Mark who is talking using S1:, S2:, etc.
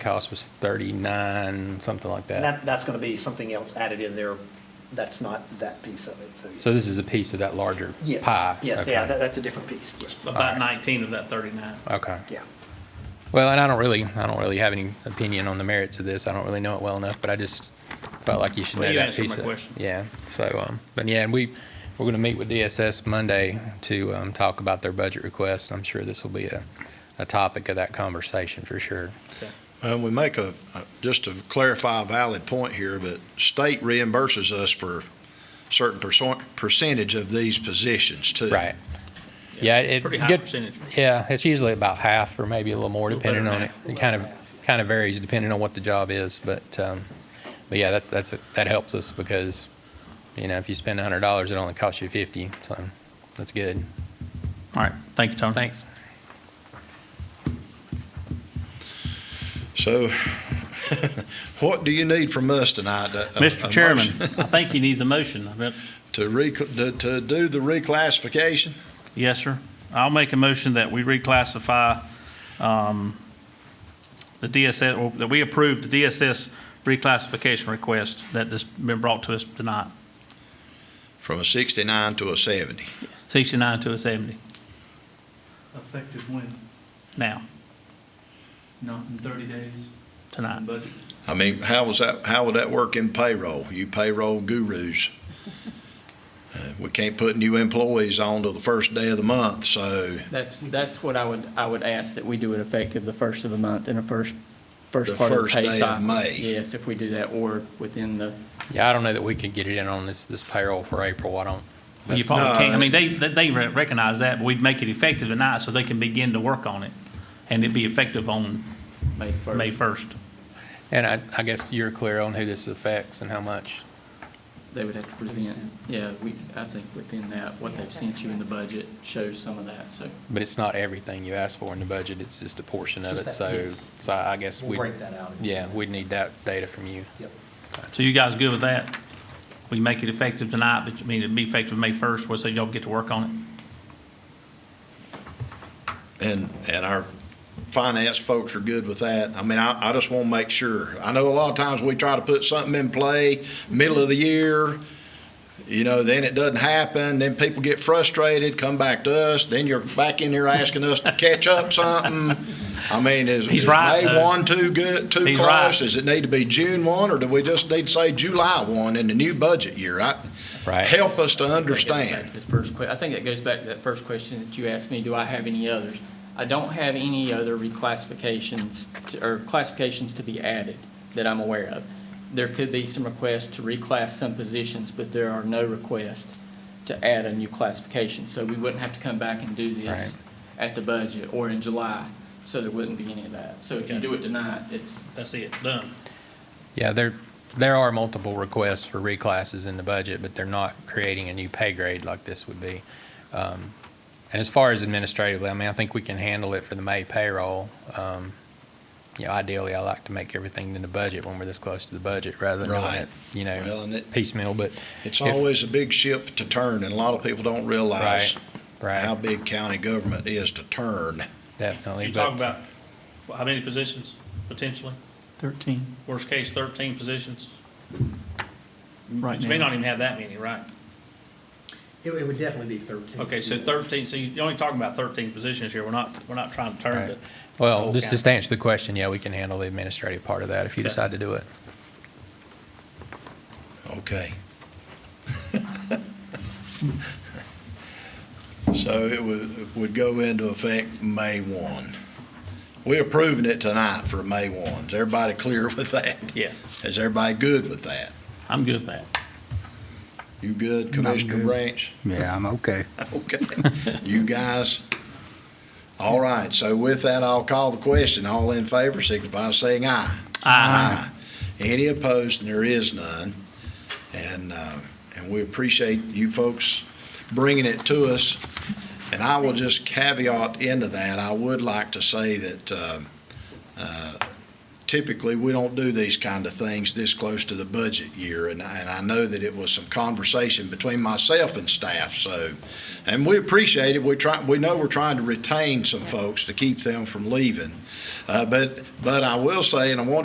S1: cost was thirty-nine, something like that.
S2: And that, that's going to be something else added in there. That's not that piece of it, so.
S1: So this is a piece of that larger
S2: Yes,
S1: pie?
S2: Yes,
S1: Okay.
S2: yeah, that, that's a different piece, yes,
S1: Alright.
S3: About 19 of that 39.
S1: Okay.
S2: yeah.
S1: Well, and I don't really, I don't really have any opinion on the merits of this. I don't really know it well enough, but I just felt like you should
S3: Well,
S1: know
S3: you
S1: that
S3: answered my
S1: piece of.
S3: question.
S1: Yeah, so, um, but yeah, and we, we're gonna meet with DSS Monday to, um, talk about their budget request. I'm sure this will be a, a topic of that conversation for sure.
S4: Well, we make a, a- just to clarify a valid point here, but state reimburses us for certain perso- percentage of these positions too.
S1: Right. Yeah, it.
S3: Pretty high
S1: good-
S3: percentage.
S1: Yeah, it's usually about half or maybe a little more
S3: Little better
S1: depending on
S3: than
S1: it. It kind of, kind of varies depending on what the job is, but, um, but yeah, that, that's, that helps us because, you know, if you spend a hundred dollars, it only costs you fifty, so that's good.
S3: All right, thank you, Tony.
S1: Thanks.
S4: So what do you need from us tonight? A- a- a
S3: Mr. Chairman,
S4: motion
S3: I think he needs a motion. I bet-
S4: To rec, to, to do the reclassification?
S3: Yes, sir. I'll make a motion that we reclassify um, the DSS, or that we approve the DSS reclassification request that has been brought to us tonight,
S4: From a sixty-nine to a seventy.
S3: 69 to a 70
S5: Effective when?
S3: now,
S5: Not in 30 days?
S3: tonight.
S5: On budget?
S4: I mean, how was that, how would that work in payroll? You payroll gurus. Uh, We can't put new employees on till the first day of the month, so
S6: That's, that's what I would, I would ask, that we do it effective the first of the month and the first,
S4: The
S6: first part of the
S4: first
S6: pay
S4: day of
S6: cycle.
S4: May.
S6: Yes, if we do that, or within the,
S1: Yeah, I don't know that we could get it in on this, this payroll for April. I don't.
S3: Well, You
S4: No,
S3: probably can't, I mean, they, they- they re- recognize that, but we'd make it effective tonight so they can begin to work on it. And it'd be effective on
S6: May first.
S3: May 1st.
S1: And I, I guess you're clear on who this affects and how much.
S6: They would have to present, yeah, we, I think within that, what they've sent you in the budget shows some of that, so.
S1: But it's not everything you asked for in the budget. It's just a portion of
S2: Just
S1: it.
S2: that
S1: So,
S2: piece.
S1: so I guess we.
S2: We'll break that out.
S1: Yeah, we'd need that data from you.
S2: Yep.
S3: So you guys good with that? We make it effective tonight, but I mean, it'd be effective May 1st, well, so y'all get to work on it.
S4: And, and our finance folks are good with that. I mean, I, I just want to make sure. I know a lot of times we try to put something in play, middle of the year, you know, then it doesn't happen, then people get frustrated, come back to us, then you're back in here asking us to catch up something. I mean, is,
S3: He's
S4: is
S3: right,
S4: May
S3: though.
S4: one too good, too
S3: He's right.
S4: close? Does it need to be June one, or do we just need to say July one in the new budget year? I-
S1: Right.
S4: Help us to
S6: I think that goes back
S4: understand.
S6: to This first que, I think that goes back to that first question that you asked me, do I have any others? I don't have any other reclassifications, to- or classifications to be added that I'm aware of. There could be some requests to reclass some positions, but there are no requests to add a new classification. So we wouldn't have to come back and do this at the budget or in July, so there wouldn't be any of that. So if you
S3: Okay.
S6: do it tonight, it's,
S3: That's it, done.
S1: Yeah, there, there are multiple requests for reclasses in the budget, but they're not creating a new pay grade like this would be. Um, And as far as administratively, I mean, I think we can handle it for the May payroll. Um, You know, ideally, I like to make everything in the budget when we're this close to the budget rather than doing
S4: Right.
S1: it, you
S4: Well, and
S1: know,
S4: it-
S1: piecemeal, but,
S4: It's
S1: If-
S4: always a big ship to turn, and a lot of people don't realize
S1: right,
S4: how
S1: right,
S4: big county government is to turn.
S1: definitely.
S3: You
S1: but-
S3: talk about well, how many positions, potentially?
S5: 13,
S3: Worst case, 13 positions.
S5: right
S3: You may not
S5: now.
S3: even have that many, right?
S2: It, it would definitely be thirteen.
S3: Okay, so 13, so you're only talking about 13 positions here. We're not, we're not trying to turn
S1: Right.
S3: it.
S1: Well,
S3: whole
S1: just just to
S3: county.
S1: answer the question, yeah, we can handle the administrative part of that if you
S3: Okay.
S1: decide to do it.
S4: Okay. So it would, would go into effect May 1. We're approving it tonight for May 1. Is everybody clear with that?
S3: Yeah,
S4: Is everybody good with that?
S3: I'm good with that.
S4: You good, Commissioner
S7: good.
S4: Branch?
S7: Yeah, I'm okay.
S4: Okay. You guys? All right, so with that, I'll call the question. All in favor, signify by saying aye.
S3: Aye.
S4: Any opposed, and there is none. And, uh, and we appreciate you folks bringing it to us. And I will just caveat into that, I would like to say that uh, uh, typically, we don't do these kind of things this close to the budget year. And, I- and I know that it was some conversation between myself and staff, so, and we appreciate it. We try, we know we're trying to retain some folks to keep them from leaving. Uh, but, but I will say, and I want